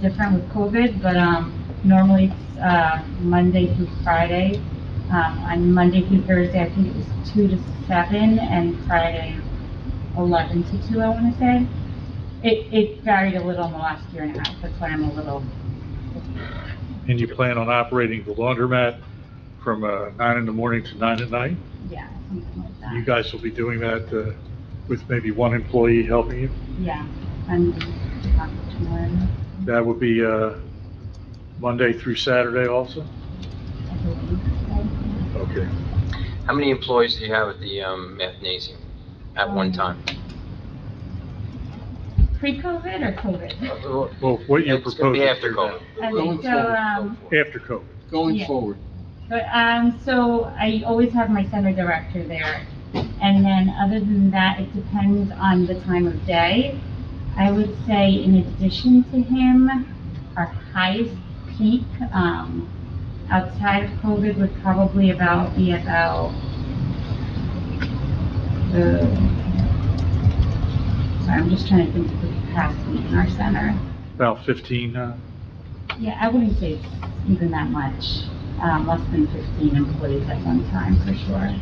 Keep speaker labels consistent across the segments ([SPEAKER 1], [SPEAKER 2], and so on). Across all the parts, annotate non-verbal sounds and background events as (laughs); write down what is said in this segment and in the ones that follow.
[SPEAKER 1] different with COVID, but, um, normally it's, uh, Monday through Friday. Um, on Monday through Thursday, I think it was two to seven, and Friday, eleven to two, I wanna say. It, it varied a little in the last year and a half, that's why I'm a little,
[SPEAKER 2] And you plan on operating the laundromat from uh, nine in the morning to nine at night?
[SPEAKER 1] yeah, something like that.
[SPEAKER 2] You guys will be doing that uh, with maybe one employee helping you?
[SPEAKER 1] Yeah, I'm, I'm tomorrow,
[SPEAKER 2] That would be uh, Monday through Saturday also?
[SPEAKER 1] I believe.
[SPEAKER 2] Okay.
[SPEAKER 3] How many employees do you have at the um, mathnasium at one time?
[SPEAKER 1] Pre-COVID or COVID?
[SPEAKER 2] Well, what you're
[SPEAKER 3] It's gonna be
[SPEAKER 2] proposing
[SPEAKER 3] after
[SPEAKER 2] here
[SPEAKER 3] COVID.
[SPEAKER 1] I
[SPEAKER 4] Going
[SPEAKER 1] think so,
[SPEAKER 4] forward.
[SPEAKER 1] um,
[SPEAKER 2] After COVID.
[SPEAKER 4] Going
[SPEAKER 1] Yeah.
[SPEAKER 4] forward,
[SPEAKER 1] But, um, so I always have my center director there. And then, other than that, it depends on the time of day. I would say in addition to him, our highest peak, um, outside of COVID would probably about, be about, uh, sorry, I'm just trying to think of the capacity in our center.
[SPEAKER 2] About 15, uh,
[SPEAKER 1] Yeah, I wouldn't say it's even that much, um, less than fifteen employees at one time, for sure.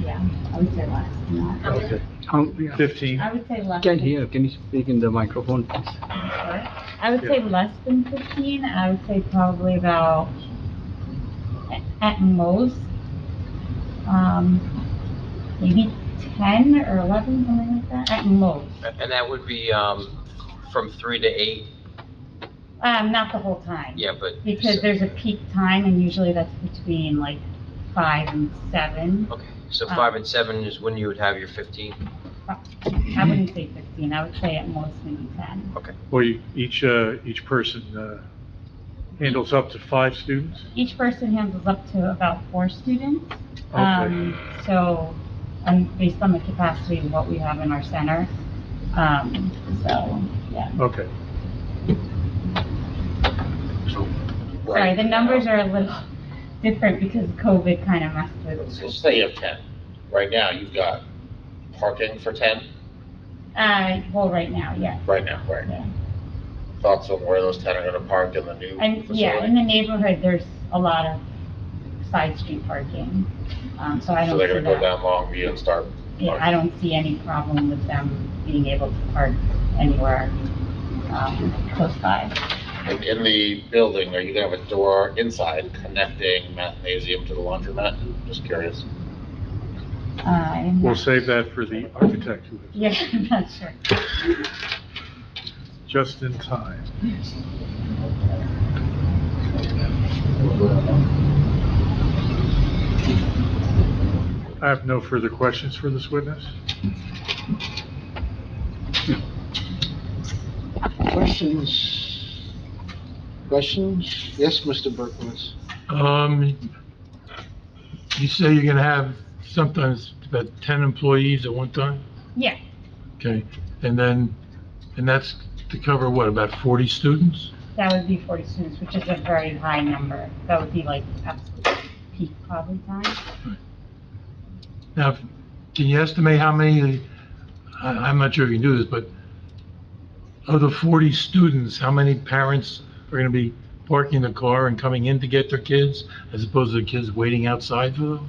[SPEAKER 1] Yeah, I would say less than that.
[SPEAKER 2] okay,
[SPEAKER 5] Um, yeah.
[SPEAKER 2] 15?
[SPEAKER 1] I would say less.
[SPEAKER 5] Can
[SPEAKER 1] than-
[SPEAKER 5] hear, can you speak in the microphone, please?
[SPEAKER 1] What? I would say less than fifteen, I would say probably about, a- at most, um, maybe ten or eleven, something like that, at most.
[SPEAKER 3] And that would be um, from three to eight,
[SPEAKER 1] Um, not the whole time.
[SPEAKER 3] yeah, but.
[SPEAKER 1] Because there's a peak time, and usually that's between like five and seven.
[SPEAKER 3] Okay, so five and seven is when you would have your 15?
[SPEAKER 1] I wouldn't say fifteen, I would say at most maybe ten.
[SPEAKER 2] Well, you- each, uh, each person uh, handles up to five students?
[SPEAKER 1] Each person handles up to about four students.
[SPEAKER 2] Okay.
[SPEAKER 1] Um, So, and based on the capacity of what we have in our center, um, so, yeah.
[SPEAKER 2] Okay.
[SPEAKER 1] Sorry, the numbers are a little different because COVID kind of messed with,
[SPEAKER 6] So say you have ten. Right now, you've got parking for ten,
[SPEAKER 1] uh, well, right now, yeah.
[SPEAKER 6] right now, right?
[SPEAKER 1] Yeah.
[SPEAKER 6] Thoughts on where those ten are gonna park in the new
[SPEAKER 1] And, yeah, in
[SPEAKER 6] facility?
[SPEAKER 1] the neighborhood, there's a lot of side street parking, um, so I
[SPEAKER 6] So
[SPEAKER 1] don't
[SPEAKER 6] they're
[SPEAKER 1] see
[SPEAKER 6] gonna go
[SPEAKER 1] that.
[SPEAKER 6] down Longview and start,
[SPEAKER 1] Yeah, I don't see any problem with them being able to park anywhere, um, close by.
[SPEAKER 6] and in the building, are you gonna have a door inside connecting mathnasium to the laundromat? Just curious.
[SPEAKER 1] Uh, I'm
[SPEAKER 2] We'll
[SPEAKER 1] not,
[SPEAKER 2] save that for the architect who is
[SPEAKER 1] yeah, (laughs) I'm not sure.
[SPEAKER 2] just in time. I have no further questions for this witness.
[SPEAKER 4] questions? Questions? Yes, Mr. Berkowitz?
[SPEAKER 7] Um, you say you're gonna have sometimes about ten employees at one time?
[SPEAKER 1] Yeah.
[SPEAKER 7] Okay, and then, and that's to cover what, about forty students?
[SPEAKER 1] That would be forty students, which is a very high number. That would be like absolute peak probably time.
[SPEAKER 7] Now, can you estimate how many, I, I'm not sure if you can do this, but of the forty students, how many parents are gonna be parking the car and coming in to get their kids as opposed to the kids waiting outside for them?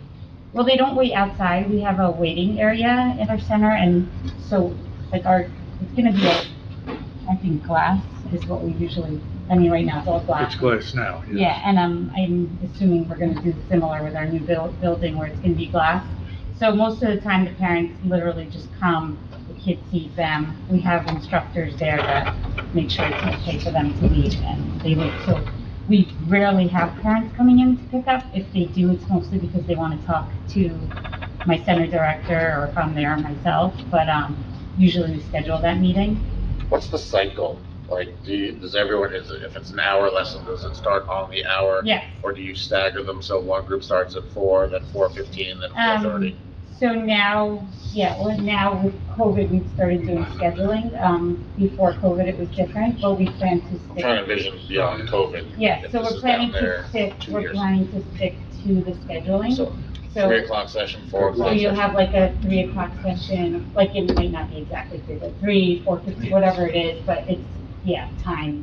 [SPEAKER 1] Well, they don't wait outside. We have a waiting area in our center and so like our, it's gonna be, a- I think glass is what we usually, I mean, right now it's all
[SPEAKER 2] It's
[SPEAKER 1] glass.
[SPEAKER 2] glass now. yes.
[SPEAKER 1] Yeah, and um, I'm assuming we're gonna do similar with our new buil- building where it's gonna be glass. So most of the time, the parents literally just come, the kid sees them. We have instructors there to make sure it's okay for them to leave and they leave. So we rarely have parents coming in to pick up. If they do, it's mostly because they wanna talk to my center director or if I'm there myself. But, um, usually we schedule that meeting.
[SPEAKER 6] What's the cycle? Like, do you, does everyone, is it, if it's an hour lesson, does it start on the hour?
[SPEAKER 1] Yes.
[SPEAKER 6] Or do you stagger them so one group starts at four, then four fifteen, then
[SPEAKER 1] Um,
[SPEAKER 6] four thirty?
[SPEAKER 1] So now, yeah, well, now with COVID, we started doing scheduling. Um, before COVID, it was different, but we plan to
[SPEAKER 6] I'm
[SPEAKER 1] stick.
[SPEAKER 6] trying to vision beyond COVID.
[SPEAKER 1] Yeah,
[SPEAKER 6] If
[SPEAKER 1] so
[SPEAKER 6] this
[SPEAKER 1] we're
[SPEAKER 6] is
[SPEAKER 1] planning
[SPEAKER 6] down there
[SPEAKER 1] to stick,
[SPEAKER 6] two
[SPEAKER 1] we're
[SPEAKER 6] years.
[SPEAKER 1] planning to stick to the scheduling.
[SPEAKER 6] So three
[SPEAKER 1] So,
[SPEAKER 6] o'clock session, four o'clock
[SPEAKER 1] so
[SPEAKER 6] session.
[SPEAKER 1] you'll have like a three o'clock session, like it might not be exactly three, but three, four fifty, whatever it is, but it's yeah, time